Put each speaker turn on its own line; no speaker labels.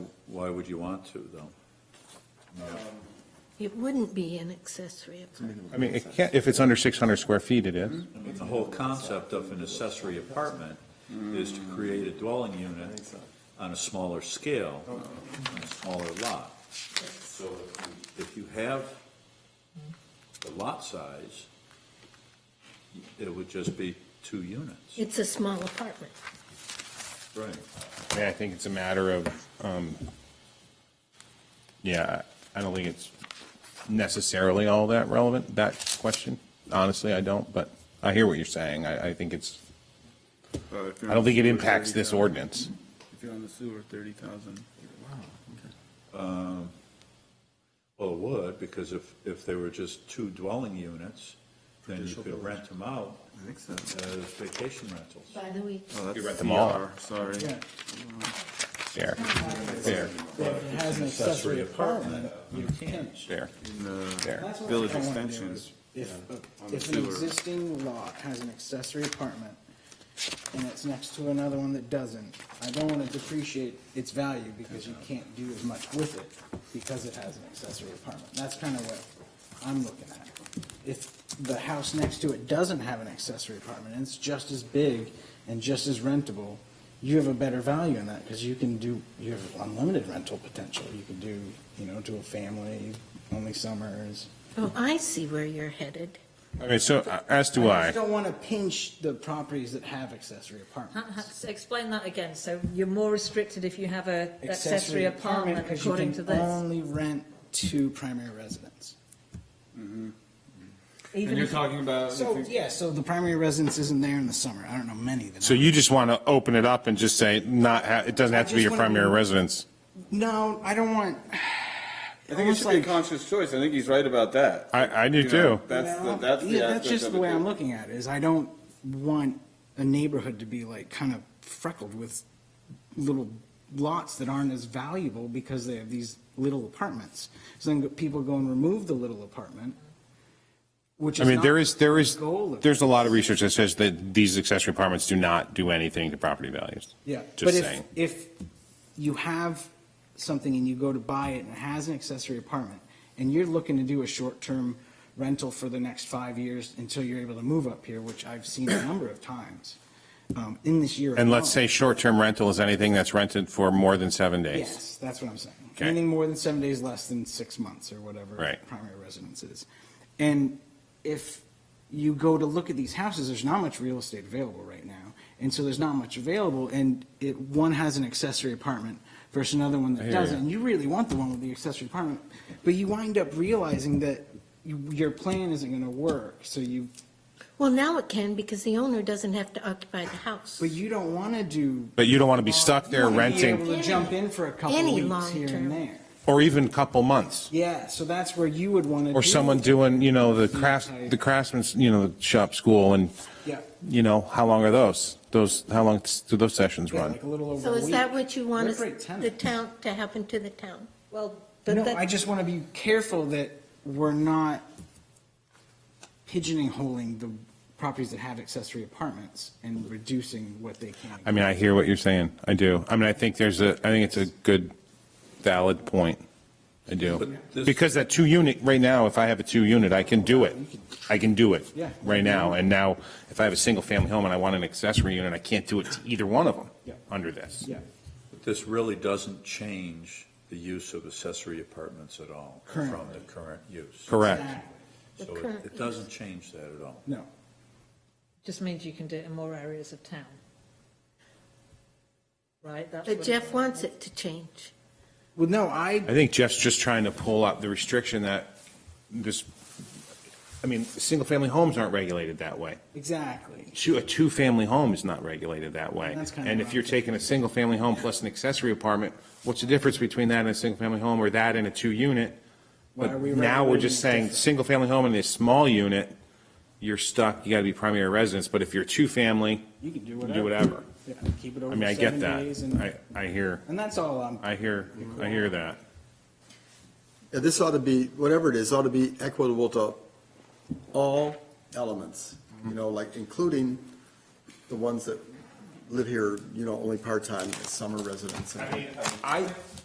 why would you want to, though?
It wouldn't be an accessory apartment.
I mean, it can't, if it's under 600 square feet, it is.
I mean, the whole concept of an accessory apartment is to create a dwelling unit on a smaller scale, on a smaller lot. So if you- if you have the lot size, it would just be two units.
Mm-hmm.
It's a small apartment.
Right.
I mean, I think it's a matter of, um, yeah, I I don't think it's necessarily all that relevant, that question. Honestly, I don't, but I hear what you're saying. I, I think it's, I don't think it impacts this ordinance.
If you're on the sewer, thirty thousand. Wow.
Well, it would, because if, if they were just two dwelling units, then you could rent them out
I think so.
as vacation rentals.
By the way,
Oh,
You rent
that's
them all.
CR, sorry.
Fair, fair,
If it has an accessory apartment, you can't.
fair,
In the
fair.
That's what
village
I wanna do
extensions.
is If,
on the
if an
sewer.
existing lot has an accessory apartment and it's next to another one that doesn't, I don't wanna depreciate its value because you can't do as much with it because it has an accessory apartment. That's kinda what I'm looking at. If the house next to it doesn't have an accessory apartment and it's just as big and just as rentable, you have a better value in that because you can do, you have unlimited rental potential. You can do, you know, to a family, only summers.
oh, I see where you're headed.
All right, so uh, as do I.
just don't want to pinch the properties that have accessory
Ha- ha-
apartments.
so Explain that again. So you're more restricted if you have a accessory apartment
'cause you
according
can
to this?
Only rent to primary residents.
Even if
Mm-hmm. talking about.
So, yeah, so the primary residence isn't there in the summer. I don't know many that.
So
are.
you just want to open it up and just say not, ha- it doesn't have to be your primary residence?
No, I don't want.
I think it should be a conscious choice. I think he's right about that.
I, I do
You know,
too.
That's, the-
Well,
that's the
yeah, that's
aspect
just
of
the way I'm
it.
looking at it. Is I don't want a neighborhood to be like kind of freckled with little lots that aren't as valuable because they have these little apartments. So then people go and remove the little apartment, which is
I mean, there
not
is, there
the
is,
goal of-
there's a lot of research that says that these accessory apartments do not do anything to property values.
Yeah, but
Just
if,
saying.
if you have something and you go to buy it and it has an accessory apartment, and you're looking to do a short-term rental for the next five years until you're able to move up here, which I've seen a number of times, um, in this year.
And let's say
alone.
short-term rental is anything that's rented for more than seven days.
Yes, that's what I'm saying.
Okay.
Anything more than seven days, less than six months or whatever.
Right.
Primary residence is. And if you go to look at these houses, there's not much real estate available right now. And so there's not much available and it, one has an accessory apartment versus another one
I
that
hear ya.
doesn't. And you really want the one with the accessory apartment, but you wind up realizing that you- your plan isn't going to work. So you
Well, now it can because the owner doesn't have to occupy the house.
But you don't want to do.
But you don't want to be stuck there
You wanna be
renting,
able to jump in for a couple
Any
weeks here
long-term.
and there.
or even couple months.
Yeah, so that's where you would want to.
Or someone doing, you know, the crafts, the craftsman's, you know, the shop school and,
Yeah,
you know, how long are those? Those, how long do those sessions
yeah,
run?
like a little over a
So is
week.
that what you want
They're
us-
great tenants.
the town, to happen to the town?
Well, but
No,
that-
I just want to be careful that we're not pigeonholing the properties that have accessory apartments and reducing what they can.
I mean, I hear what you're saying. I do. I mean, I think there's a, I think it's a good, valid point. I do.
But this-
Because that two unit, right now, if I have a two unit, I can do it. I can do it.
Yeah.
Right now. And now, if I have a single family home and I want an accessory unit, I can't do it to either one of them
Yeah.
under this.
Yeah,
This really doesn't change the use of accessory apartments at all from the
Currently.
current use.
Correct.
The
So it-
current
it doesn't change that at all.
no.
just means you can do it in more areas of town. Right? That's
But
what-
Jeff wants it to change.
Well, no, I,
I think Jeff's just trying to pull up the restriction that this, I mean, single family homes aren't regulated that way.
exactly.
two, a two-family home is not regulated that way.
That's kinda
And
what
if
I'm
you're taking a single-family home plus an accessory apartment, what's the difference between that and a single-family home, or that and a two-unit?
Why
But
are we
now we're
regulating
just
it
saying,
different?
single-family home and a small unit, you're stuck, you gotta be primary residence, but if you're two-family,
You can do
you can
whatever.
do whatever.
Yeah, keep it
I
over
mean, I
seven
get
days and,
that. I, I hear,
and that's all I'm.
I hear, I hear that.
Yeah, this ought to be, whatever it is, ought to be equitable to all elements, you know, like including the ones that live here, you know, only part-time, summer residents. and-
I,